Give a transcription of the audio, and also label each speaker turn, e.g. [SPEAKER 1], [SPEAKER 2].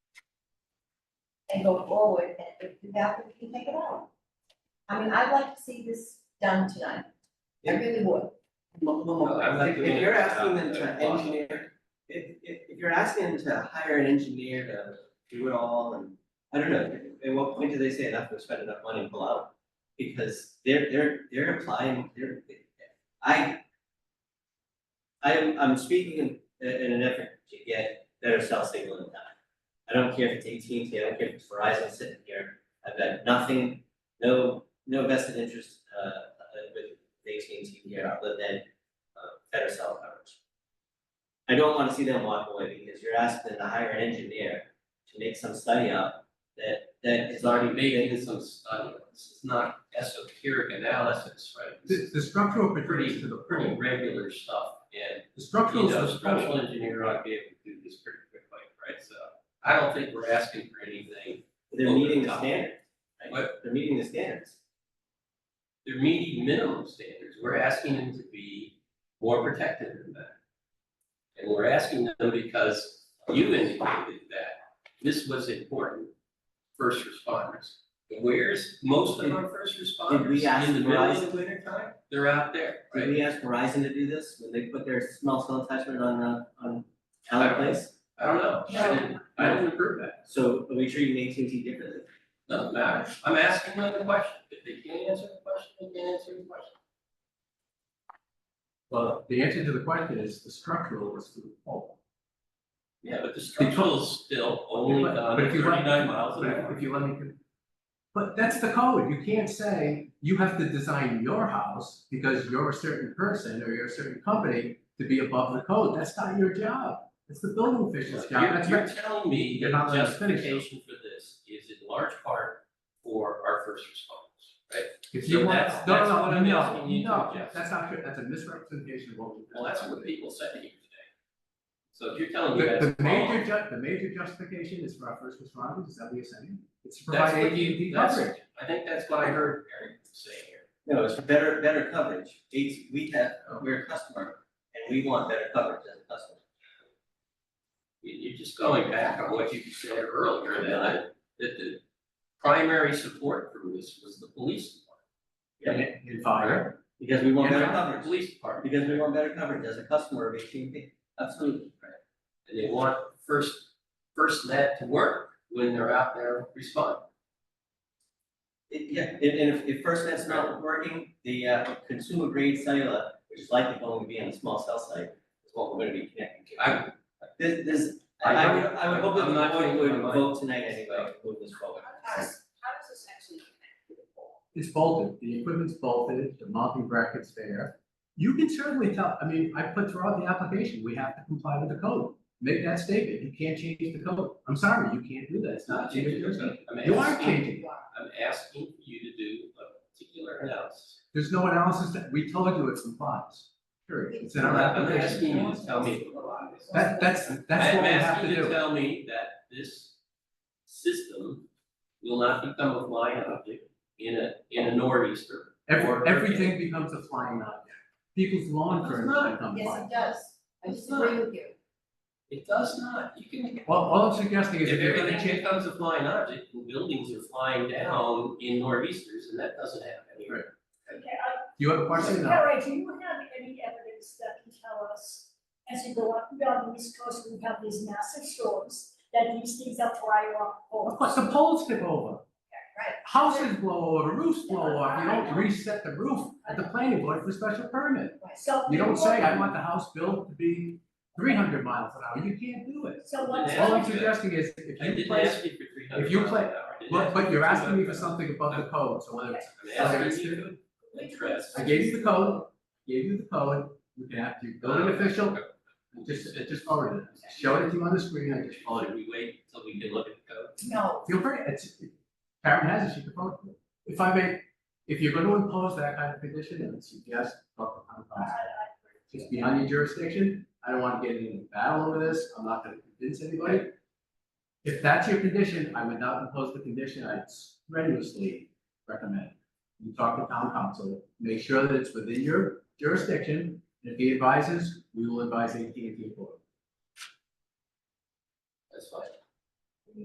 [SPEAKER 1] and go forward, and if you have, it, you can take it out. I mean, I'd like to see this done tonight, I
[SPEAKER 2] Yeah.
[SPEAKER 1] really would.
[SPEAKER 2] Well, well, well,
[SPEAKER 3] I'm not
[SPEAKER 2] if-
[SPEAKER 3] doing
[SPEAKER 2] if you're
[SPEAKER 3] it,
[SPEAKER 2] asking
[SPEAKER 3] uh,
[SPEAKER 2] them to
[SPEAKER 3] uh,
[SPEAKER 2] engineer, if if if you're asking them to hire an engineer to do it all and. I don't know, at what point do they say enough, we've spent enough money, pull out? Because they're they're they're applying, they're, I. I am, I'm speaking in in an effort to get better cell signal in town. I don't care if it's AT&T, I don't care if it's Verizon sitting here, I've got nothing, no, no vested interest uh uh, with AT&T here, other than uh, better cell coverage. I don't wanna see them walk away because you're asking them to hire an engineer to make some study up that, that is
[SPEAKER 3] It's
[SPEAKER 2] already
[SPEAKER 3] already
[SPEAKER 2] made.
[SPEAKER 3] making some study, this is not esoteric analysis, right? This
[SPEAKER 4] The,
[SPEAKER 3] is
[SPEAKER 4] the structural
[SPEAKER 3] pretty,
[SPEAKER 4] pertains to the
[SPEAKER 3] pretty
[SPEAKER 4] pole.
[SPEAKER 3] regular stuff, and,
[SPEAKER 4] The
[SPEAKER 3] you
[SPEAKER 4] structural is
[SPEAKER 3] know,
[SPEAKER 4] the pole.
[SPEAKER 3] structural engineer ought to be able to do this pretty quickly, right? So I don't think we're asking for anything,
[SPEAKER 2] They're meeting the standard, right?
[SPEAKER 3] What?
[SPEAKER 2] They're meeting the standards.
[SPEAKER 3] they're meeting minimum standards, we're asking them to be more protective than that. And we're asking them because you indicated that this was important, first responders. Where's most of our first
[SPEAKER 2] Did we
[SPEAKER 3] responders
[SPEAKER 2] ask
[SPEAKER 3] in the middle of the
[SPEAKER 2] Verizon-
[SPEAKER 3] winter time? They're out there, right?
[SPEAKER 2] Did we ask Verizon to do this when they put their small cell attachment on, uh, on
[SPEAKER 3] I
[SPEAKER 2] Allen
[SPEAKER 3] don't
[SPEAKER 2] Place?
[SPEAKER 3] I don't know, I didn't, I didn't approve that,
[SPEAKER 2] So are we treating AT&T differently?
[SPEAKER 3] doesn't matter, I'm asking another question, if they can't answer the question, they can't answer the question.
[SPEAKER 4] Well, the answer to the question is the structural is to the pole.
[SPEAKER 3] Yeah, but the structural is still only done
[SPEAKER 4] But if you let-
[SPEAKER 3] thirty-nine miles an hour.
[SPEAKER 4] If you let me. con- But that's the code, you can't say you have to design your house because you're a certain person or you're a certain company to be above the code, that's not your job. It's the building official's job,
[SPEAKER 3] You're,
[SPEAKER 4] that's
[SPEAKER 3] you're
[SPEAKER 4] your,
[SPEAKER 3] telling me
[SPEAKER 4] You're
[SPEAKER 3] that
[SPEAKER 4] not letting us finish.
[SPEAKER 3] justification for this is in large part for our first responders, right?
[SPEAKER 4] if
[SPEAKER 3] so
[SPEAKER 4] you want,
[SPEAKER 3] that's-
[SPEAKER 4] no,
[SPEAKER 3] that's
[SPEAKER 4] no,
[SPEAKER 3] what
[SPEAKER 4] no,
[SPEAKER 3] I'm
[SPEAKER 4] no,
[SPEAKER 3] asking you to
[SPEAKER 4] no,
[SPEAKER 3] adjust.
[SPEAKER 4] that's not true, that's a misrepresentation of what we.
[SPEAKER 3] Well, that's what people said here today. So if you're telling me that's
[SPEAKER 4] The, the
[SPEAKER 3] wrong,
[SPEAKER 4] major ju- the major justification is for our first responders, is that what you're saying? It's to
[SPEAKER 3] that's
[SPEAKER 4] provide
[SPEAKER 3] what
[SPEAKER 4] AT&T
[SPEAKER 3] you, that's,
[SPEAKER 4] coverage.
[SPEAKER 3] I think that's what I heard Eric say here.
[SPEAKER 2] No, it's better, better coverage. It's, we have, we're a customer and we want better coverage as a customer.
[SPEAKER 3] You- You're just going back on what you said earlier, that I, that the primary support for this was the police department.
[SPEAKER 4] And, and fire.
[SPEAKER 2] Because we want
[SPEAKER 3] And
[SPEAKER 2] better
[SPEAKER 3] not the
[SPEAKER 2] coverage.
[SPEAKER 3] Police department,
[SPEAKER 2] Because we want better coverage as a customer of AT&T, absolutely.
[SPEAKER 3] and they want first, first net to work when they're out there responding.
[SPEAKER 2] It- Yeah, and, and if, if first that's not working, the uh, consumer grade cellular, which is likely going to be on a small cell site, is what we're gonna be connecting to.
[SPEAKER 3] I,
[SPEAKER 2] This, this,
[SPEAKER 3] I
[SPEAKER 2] I, I would, I would hope that
[SPEAKER 3] I'm not
[SPEAKER 2] the board
[SPEAKER 3] changing
[SPEAKER 2] would
[SPEAKER 3] my mind.
[SPEAKER 2] vote tonight anyway, to move this forward.
[SPEAKER 5] How does, how does this actually connect to the pole?
[SPEAKER 4] It's bolted, the equipment's bolted, the mounting bracket's there. You can certainly tell, I mean, I put throughout the application, we have to comply with the code. Make that statement, you can't change the code. I'm sorry, you can't do that, it's not
[SPEAKER 3] changing
[SPEAKER 4] changing your code.
[SPEAKER 3] I'm
[SPEAKER 4] You are
[SPEAKER 3] asking-
[SPEAKER 4] changing.
[SPEAKER 3] I'm asking you to do a particular analysis.
[SPEAKER 4] There's no analysis that, we told you it complies. Sure, it's in our
[SPEAKER 3] I'm
[SPEAKER 4] application.
[SPEAKER 3] asking you to tell me what it is.
[SPEAKER 4] That, that's, that's what we
[SPEAKER 3] I'm
[SPEAKER 4] have to
[SPEAKER 3] asking you to
[SPEAKER 4] do.
[SPEAKER 3] tell me that this system will not become a flying object in a, in a nor'easter.
[SPEAKER 4] Every,
[SPEAKER 3] or-
[SPEAKER 4] everything becomes a flying object. People's lawn
[SPEAKER 3] It's
[SPEAKER 4] furniture
[SPEAKER 3] not.
[SPEAKER 4] becomes
[SPEAKER 1] Yes,
[SPEAKER 4] flying.
[SPEAKER 1] it does, I
[SPEAKER 3] It's
[SPEAKER 1] disagree with you.
[SPEAKER 3] It does not, you can,
[SPEAKER 4] Well, all I'm suggesting is
[SPEAKER 3] if
[SPEAKER 4] if you're gonna
[SPEAKER 3] everything
[SPEAKER 4] change.
[SPEAKER 3] becomes a flying object, and buildings are flying down in nor'easters, and that doesn't happen here.
[SPEAKER 4] Right.
[SPEAKER 5] Okay, I,
[SPEAKER 4] Do you have a question? No.
[SPEAKER 5] Harry, do you have any evidence that can tell us, as you go up and down the east coast, we have these massive storms, that these things are flying off
[SPEAKER 4] Of
[SPEAKER 5] poles?
[SPEAKER 4] course, the poles tip over.
[SPEAKER 1] right.
[SPEAKER 4] Houses blow over, roofs blow off, you don't reset the roof at the planning board for special permit.
[SPEAKER 5] So.
[SPEAKER 4] You don't say, I want the house built to be three hundred miles an hour, you can't do it.
[SPEAKER 5] So one
[SPEAKER 3] Yeah.
[SPEAKER 4] All
[SPEAKER 5] time,
[SPEAKER 4] I'm suggesting is,
[SPEAKER 3] I
[SPEAKER 4] if you
[SPEAKER 3] didn't
[SPEAKER 4] place,
[SPEAKER 3] ask you for three hundred
[SPEAKER 4] if you
[SPEAKER 3] miles an
[SPEAKER 4] play-
[SPEAKER 3] hour. I didn't
[SPEAKER 4] but,
[SPEAKER 3] ask
[SPEAKER 4] but
[SPEAKER 3] you
[SPEAKER 4] you're asking me
[SPEAKER 3] 200
[SPEAKER 4] for something above the code, so whether it's,
[SPEAKER 3] I'm asking you to address.
[SPEAKER 4] I gave you the code, gave you the code, you can have to go to an official, just, I just forward it. Show it to you on the screen, I just forward
[SPEAKER 3] Should we wait till we can look at the code?
[SPEAKER 1] No,
[SPEAKER 4] it. Feel free, it's, Karen has it, she can forward it. If I may, if you're gonna impose that kind of condition, I would suggest, talk to the town
[SPEAKER 5] I, I,
[SPEAKER 4] council. It's beyond your jurisdiction. I don't want to get into a battle over this. I'm not going to convince anybody. If that's your condition, I would not impose the condition. I strenuously recommend. You talk to town council, make sure that it's within your jurisdiction. If he advises, we will advise AT&T for it.
[SPEAKER 3] That's fine.